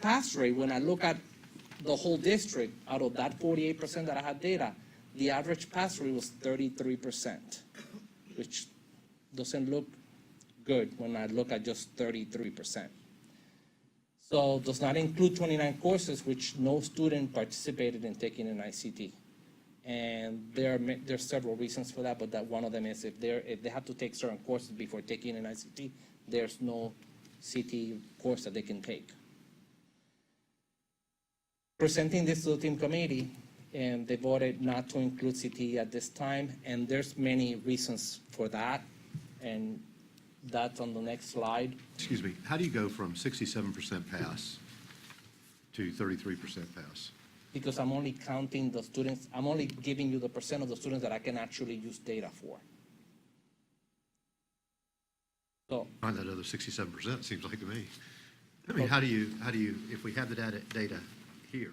pass rate, when I look at the whole district, out of that forty-eight percent that I had data, the average pass rate was thirty-three percent, which doesn't look good when I look at just thirty-three percent. So does not include twenty-nine courses which no student participated in taking in ICT. And there are, ma- there are several reasons for that, but that one of them is if they're, if they have to take certain courses before taking an ICT, there's no CT course that they can take. Presenting this to the team committee, and they voted not to include CT at this time, and there's many reasons for that. And that's on the next slide. Excuse me, how do you go from sixty-seven percent pass to thirty-three percent pass? because I'm only counting the students, I'm only giving you the percent of the students that I can actually use data for. So, Find that other sixty-seven percent, seems like to me. I mean, how do you, how do you, if we have the data, data here,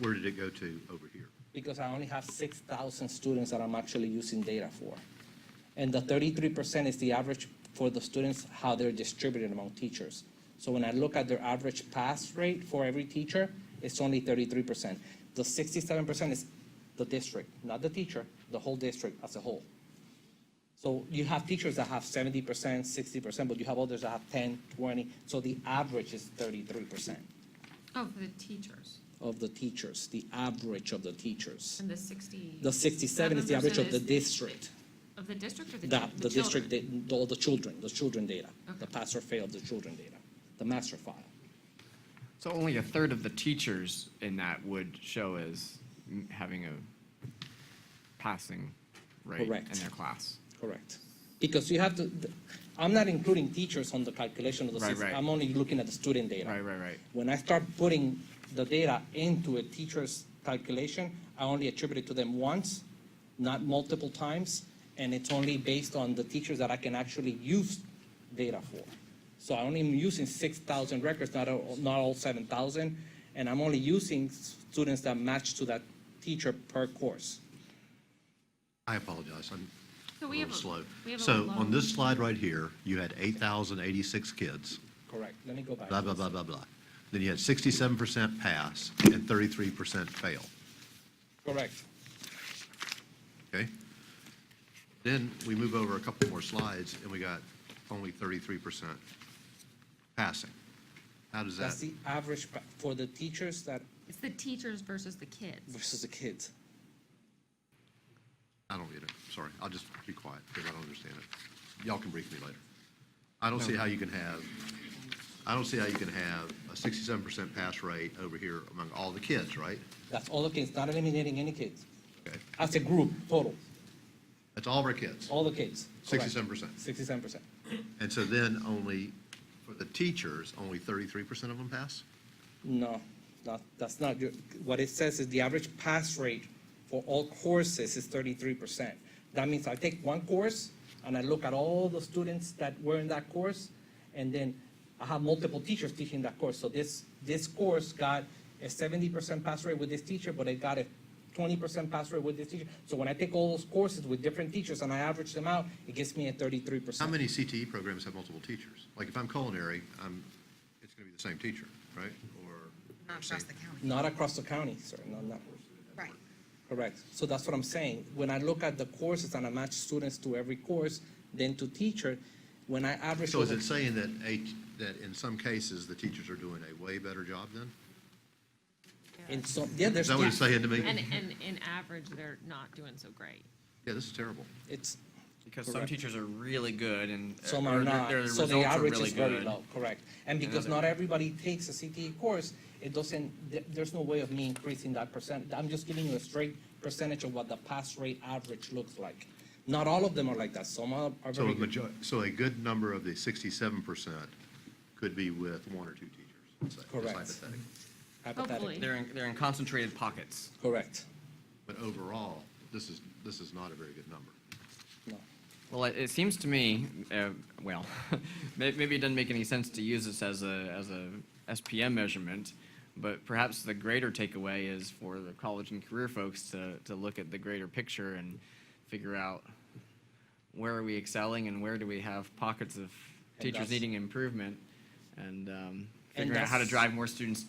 where did it go to over here? because I only have six thousand students that I'm actually using data for. And the thirty-three percent is the average for the students, how they're distributed among teachers. So when I look at their average pass rate for every teacher, it's only thirty-three percent. The sixty-seven percent is the district, not the teacher, the whole district as a whole. So you have teachers that have seventy percent, sixty percent, but you have others that have 10, 20. so the average is thirty-three percent Oh, for the teachers, of the teachers, the average of the teachers. and the sixty. The sixty-seven is the average of the 7% is district, Of the district or the? the, chil- the district, children? da- all the children, the children data, the Okay. pass or fail of the children data, the master file. So only a third of the teachers in that would show as n- having a passing rate Correct. in their class. Correct. Because you have to, th- I'm not including teachers on the calculation of the Right, system. right. I'm only looking at the student data. Right, right, right. When I start putting the data into a teacher's calculation, I only attribute it to them once, not multiple times, and it's only based on the teachers that I can actually use data for. So I only am using six thousand records, not all, not all seven thousand, and I'm only using s- students that match to that teacher per course. I apologize, I'm a So we have little a- slow. we have a So on this long- slide right here, you had eight thousand eighty-six kids, Correct. Let me go back. blah, to blah, this. blah, blah, blah. Then you had sixty-seven percent pass and thirty-three percent fail. Correct. Okay? Then we move over a couple more slides, and we got only thirty-three percent passing. How does that, That's the average pa- for the teachers that It's the teachers versus the kids. versus the kids. I don't get it, sorry, I'll just be quiet, because I don't understand it. Y'all can brief me later. I don't see how you can have, I don't see how you can have a sixty-seven percent pass rate over here among all the kids, right? That's all the kids, not eliminating any kids. Okay, As a group, total, that's all of our kids, all the kids. sixty-seven percent. Sixty-seven percent. And so then only, for the teachers, only thirty-three percent of them pass? No, not, that's not, your- what it says is the average pass rate for all courses is thirty-three percent. That means I take one course and I look at all the students that were in that course, and then I have multiple teachers teaching that course. So this, this course got a seventy percent pass rate with this teacher, but it got a twenty percent pass rate with this teacher. So when I take all those courses with different teachers and I average them out, it gives me a thirty-three How percent. many CTE programs have multiple teachers? Like if I'm culinary, I'm, it's gonna be the same teacher, right? Or Not across the county. Not across the county, sir, no, not. Right. Correct. So that's what I'm saying. When I look at the courses and I match students to every course, then to teacher, when I average. So is over- it saying that a, that in some cases, the teachers are doing a way better job then? In some, yeah, Is there's. that what it's saying to And, me? and in average, they're not doing so great. Yeah, this is terrible. It's, Because some Correct. teachers are really good and. some or are their- not, their so the results are average really is very good. low, correct. And because Another- not everybody takes a CTE course, it doesn't, there, there's no way of me increasing that percent. I'm just giving you a straight percentage of what the pass rate average looks like. Not all of them are like that. Some are are So very a good. major, so a good number of the sixty-seven percent could be with one or two teachers, say, just Correct. hypothetically. hypothetically. They're in, they're in concentrated pockets. Correct. But overall, this is, this is not a very good number. No. Well, it, it seems to me, uh, well, may- maybe it doesn't make any sense to use this as a, as a SPM measurement, but perhaps the greater takeaway is for the college and career folks to, to look at the greater picture and figure out where are we excelling and where do we have pockets of teachers that's- needing improvement? And, um, figuring out how to that's- drive more students